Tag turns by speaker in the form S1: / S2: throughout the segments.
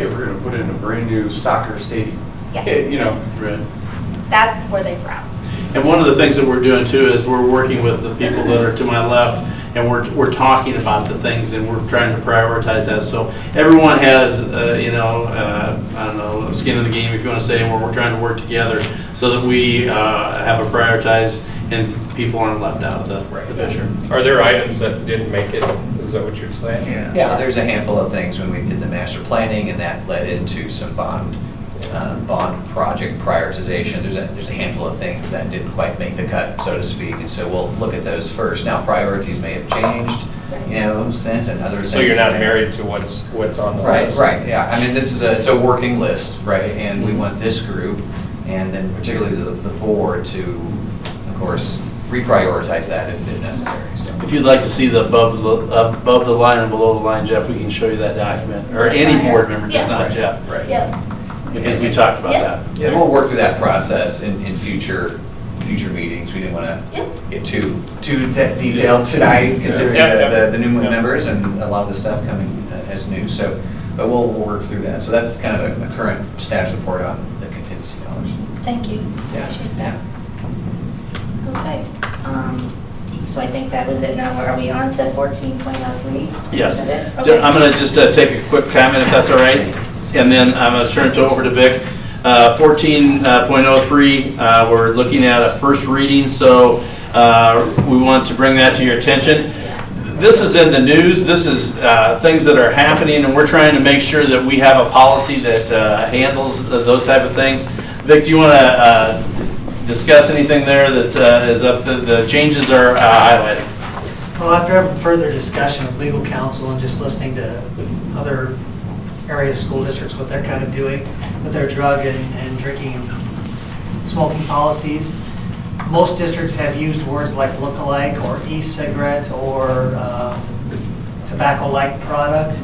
S1: hey, we're gonna put in a brand-new soccer stadium.
S2: Yeah,
S1: Eh, You know,
S3: Right.
S2: that's where they're from.
S3: And one of the things that we're doing too is we're working with the people that are to my left and we're, we're talking about the things and we're trying to prioritize that. So everyone has, uh, you know, uh, I don't know, skin in the game, if you want to say, and we're, we're trying to work together so that we uh, have a prioritized and people aren't left out of the the picture.
S4: Are there items that didn't make it? Is that what you're saying?
S5: Yeah, there's a handful of things when we did the master planning, and that led into some bond, uh, bond project prioritization. There's a, there's a handful of things that didn't quite make the cut, so to speak, and so we'll look at those first. Now, priorities may have changed, you know, since, and other things.
S4: So you're not
S5: may-
S4: married to what's, what's on the
S5: Right,
S4: list?
S5: right, yeah, I mean, this is a, it's a working list, right, and we want this group, and then particularly the, the board to, of course, reprioritize that if if necessary, so.
S3: If you'd like to see the above, the- above the line and below the line, Jeff, we can show you that document, or any board member, just
S2: Yeah.
S3: not Jeff,
S5: Right.
S2: Yeah,
S3: because we talked about that.
S5: Yeah, we'll work through that process in, in future, future meetings. We didn't want to
S2: yeah.
S5: get too, too de- detailed tonight, considering
S4: Yeah, yeah.
S5: the, the- the new
S4: Yeah.
S5: members and a lot of the stuff coming uh, as new. So, but we'll, we'll work through that. So that's kind of a- a current status report on the contingency dollars.
S2: Thank you.
S5: Yeah.
S2: Appreciate that. Okay, um, so I think that was it. Now, are we on to fourteen point oh three?
S3: Yes.
S2: Okay.
S3: I'm going to just uh, take a quick comment, if that's all right, and then I'm going to turn it over to Vic. Uh, 14.03, uh, we're looking at a first reading, so uh, we want to bring that to your attention. This is in the news, this is uh, things that are happening, and we're trying to make sure that we have a policy that uh, handles th- those type of things. Vic, do you want to discuss anything there that uh, is up, the- the changes are uh, highlighted?
S6: Well, after further discussion with legal counsel and just listening to other area school districts, what they're kind of doing with their drug and and drinking and smoking policies, most districts have used words like look-alike or e-cigarette or um, tobacco-like product.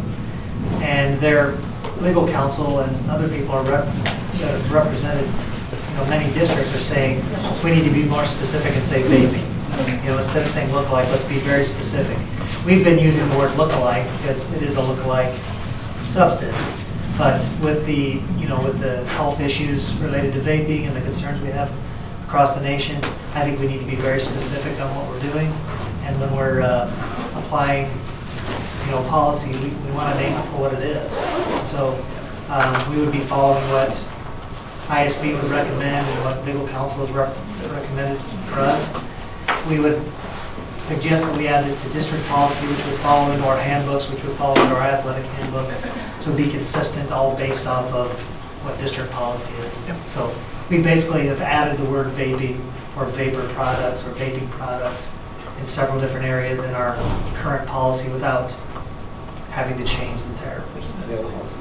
S6: And their legal counsel and other people are rep- that have represented, you know, many districts are saying, we need to be more specific and say vaping. You know, instead of saying look-alike, let's be very specific. We've been using the word look-alike because it is a look-alike substance. But with the, you know, with the health issues related to vaping and the concerns we have across the nation, I think we need to be very specific on what we're doing. And when we're uh, applying, you know, policy, we, we want to name it for what it is. So um, we would be following what ISB would recommend and what legal counsel has rec- recommended for us we would suggest that we add this to district policy, which would follow into our handbooks, which would follow into our athletic handbooks. So it'd be consistent, all based off of what district policy is. So we basically have added the word vaping or vapor products or vaping products in several different areas in our current policy without having to change the entire policy.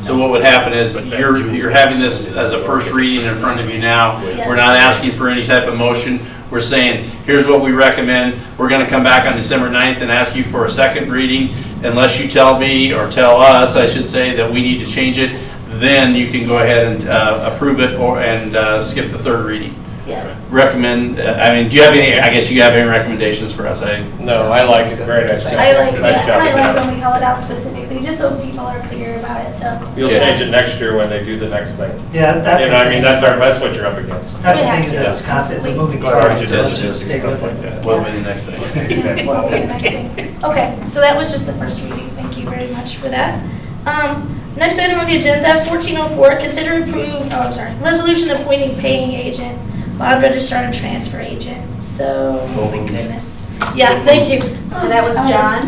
S3: So what would happen is, you're, you're having this as a first reading in front of you now. We're not asking for any type of motion. We're saying, here's what we recommend. We're going to come back on December 9th and ask you for a second reading. Unless you tell me, or tell us, I should say, that we need to change it, then you can go ahead and uh, approve it or, and uh, skip the third reading.
S2: Yeah.
S3: Recommend, uh, I mean, do you have any, I guess you have any recommendations for us? I,
S4: No, I liked it. Very nice. job.
S2: I like,
S4: Nice
S2: yeah,
S4: job
S2: and
S4: you
S2: I
S4: did.
S2: like when we call it out specifically, just so people are clear about it, so.
S4: You'll
S3: Yeah.
S4: change it next year when they do the next thing.
S6: Yeah, that's.
S4: You know, I mean, that's our, that's what you're up against.
S6: That's the
S2: We have
S6: thing,
S2: to.
S6: that's constant, it's a moving
S4: Go hard
S6: target,
S4: to
S6: so let's
S4: digest
S6: just stick with
S4: stuff like
S6: it.
S4: that.
S3: what would be the next thing?
S2: Well, okay, next thing. Okay, so that was just the first reading. Thank you very much for that. Um, Next item on the agenda, 1404, consider approve, oh, I'm sorry, resolution appointing paying agent, bond registrar and transfer agent. So, oh my goodness. Yeah, thank you. Um,
S7: And that was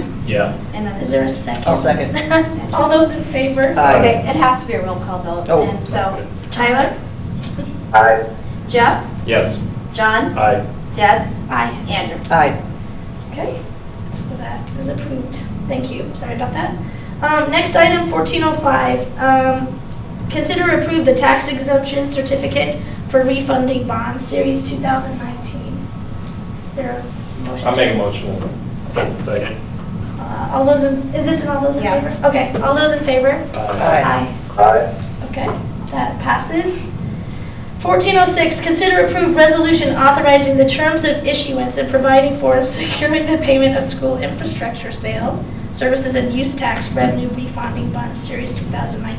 S7: John,
S4: Yeah.
S7: and then
S2: Is there a 2nd
S8: I'll second. Uh,
S2: All those in favor?
S8: Aye.
S7: Okay, it has to be a roll call
S8: Oh.
S7: vote, and so Tyler,
S8: Aye.
S7: Jeff,
S4: Yes.
S7: John,
S4: Aye.
S7: Deb,
S2: Aye.
S7: Andrew.
S8: Aye.
S2: Okay, so that is approved. Thank you, sorry about that. Um, Next item, 1405, um, consider approve the tax exemption certificate for refunding bond series 2019. Is there a motion?
S4: I'll make a motion.
S2: Second.
S4: Second.
S2: Uh, All those, in is this in all those in
S7: Yeah.
S2: favor? Okay, all those in favor? Aye.
S8: Aye.
S2: Okay, that passes. 1406, consider approve resolution authorizing the terms of issuance and providing for and securing the payment of school infrastructure sales, services and use tax revenue refunding bond series 2019.